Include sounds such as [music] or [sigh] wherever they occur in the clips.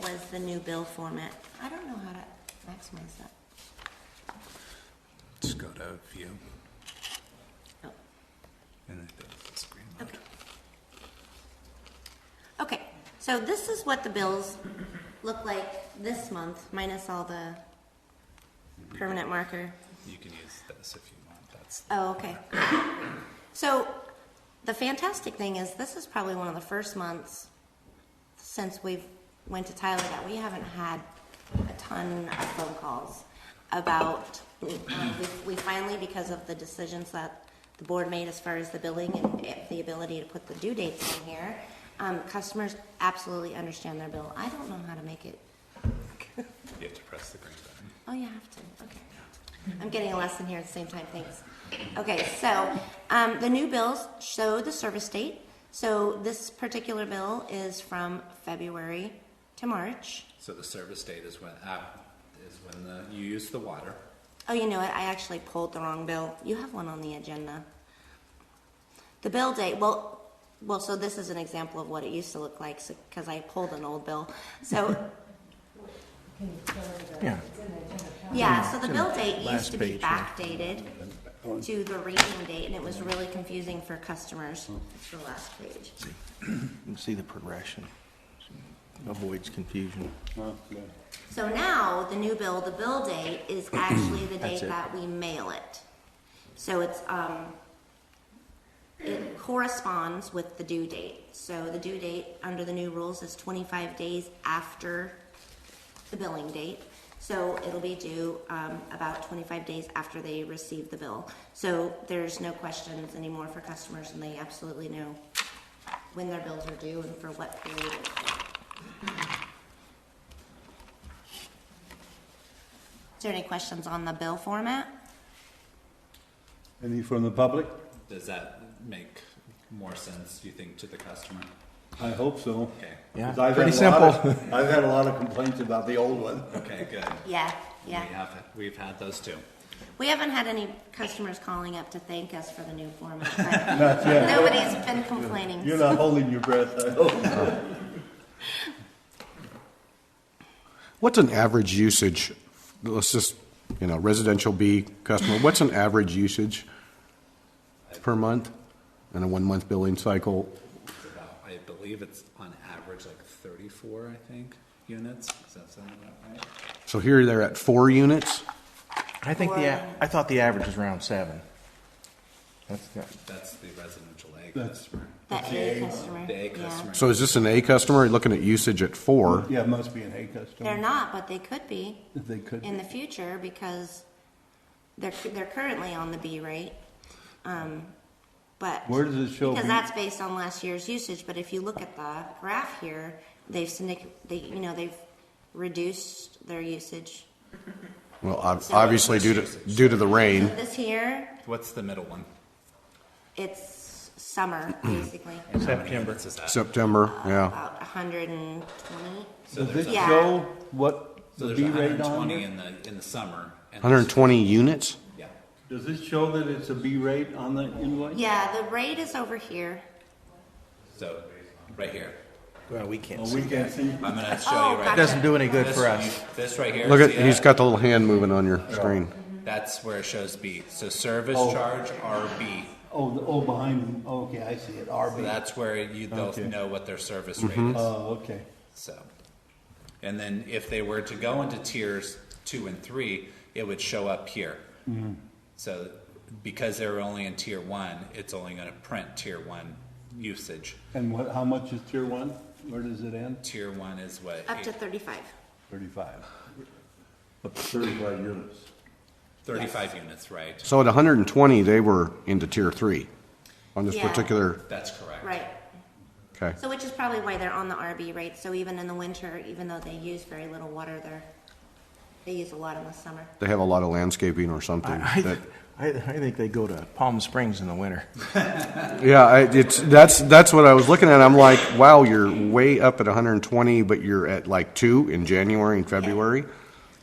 was the new bill format. I don't know how to maximize that. Just go to view Oh, and it does the screen load. okay. Okay, so this is what the bills look like this month, minus all the permanent marker. You can use this if you want. That's Oh, okay. So the fantastic thing is this is probably one of the first months since we've went to Tyler that we haven't had a ton of phone calls about we- we finally because of the decisions that the board made as far as the billing and it- the ability to put the due dates in here um, customers absolutely understand their bill i don't know how to make it you have to press the green button. Oh, you have to. Okay. I'm getting a lesson here at the same time. Thanks. Okay, so um, the new bills show the service date. So this particular bill is from February to March. So the service date is when app is when the you use the water. Oh, you know what? I actually pulled the wrong bill. You have one on the agenda. The bill date, well, well, so this is an example of what it used to look like because I pulled an old bill. So, Yeah, yeah, so the bill date used Last to be page, yeah. backdated to the reading date and it was really confusing for customers. It's the last page. you can see the progression. Avoids confusion. So now, the new bill, the bill date [clears throat] is actually the date That's it. that we mail it. So it's, um, it corresponds with the due date. So the due date under the new rules is twenty-five days after the billing date. So it'll be due, um, about twenty-five days after they receive the bill. So there's no questions anymore for customers and they absolutely know when their bills are due and for what period. Is there any questions on the bill format? Any from the public? Does that make more sense? Do you think to the customer? I hope so. Okay. 'Cause Yeah, I've pretty had a lot simple. of- I've had a lot of complaints about the old one. Okay. Good. Yeah, yeah. We have we've had those too. We haven't had any customers calling up to thank us for the new format. but Nobody's been complaining. You're not holding your breath, I hope. What's an average usage? Let's just, you know, residential B customer, what's an average usage per month in a one-month billing cycle? It's about- I believe it's on average like 34. I think units. Does that sound about right? So here they're at four units? I think the, a- I thought the average was around seven. That's, not- That's the residential A That's- customer. That A customer. The A yeah. customer. So is this an A customer looking at usage at four? Yeah, it must be an A customer. They're not, but they could be If They could. in the future because they're, they're currently on the B rate. Um, But. Where does it show? Because that's based on last year's usage, but if you look at the graph here, they've syndic, they, you know, they've reduced their usage. Well, ob- obviously due to, due to the rain. This here, What's the middle one? it's summer, basically. September. Is that? September, yeah. About hundred and twenty. Does it Yeah. show what So the there's B rate on 120 it? in the, in the summer. and- 120 units? Yeah. Does this show that it's a B rate on the invoice? Yeah, the rate is over here. So, right here. Well, we can't Oh, we see. can see. I'm gonna show Oh, you right. gotcha. Doesn't do any good This- for us. This right here. Look at, see he's that? got the little hand moving on your screen. That's where it shows B. So service Oh. charge RB. Oh, the, oh, behind them. Okay, I see it. So RB. that's where you, they'll Okay. know what their service rate Mm-hmm. is, Oh, okay. so. And then if they were to go into tiers two and three, it would show up here. Mm-hmm. So, because they're only in tier one, it's only gonna print tier one usage. And what, how much is tier one? Where does it end? Tier one is what? Up to eight- thirty-five. Thirty-five. Up to thirty-five units. Thirty-five units, right? So at 120, they were into tier three on this Yeah. particular, That's correct. Right. okay. So which is probably why they're on the RB rate. So even in the winter, even though they use very little water, they're, they use a lot in the summer. They have a lot of landscaping or something. I, that- I, I think they go to Palm Springs in the winter. yeah, I, it's that's that's what I was looking at. I'm like, wow, you're way up at 120, but you're at like two in January and February.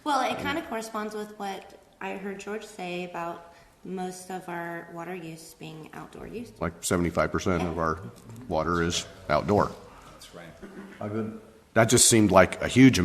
Well, it kind of corresponds with what I heard George say about most of our water use being outdoor use. Like 75 percent of our water is outdoor. That's right. I've been, That just seemed like a huge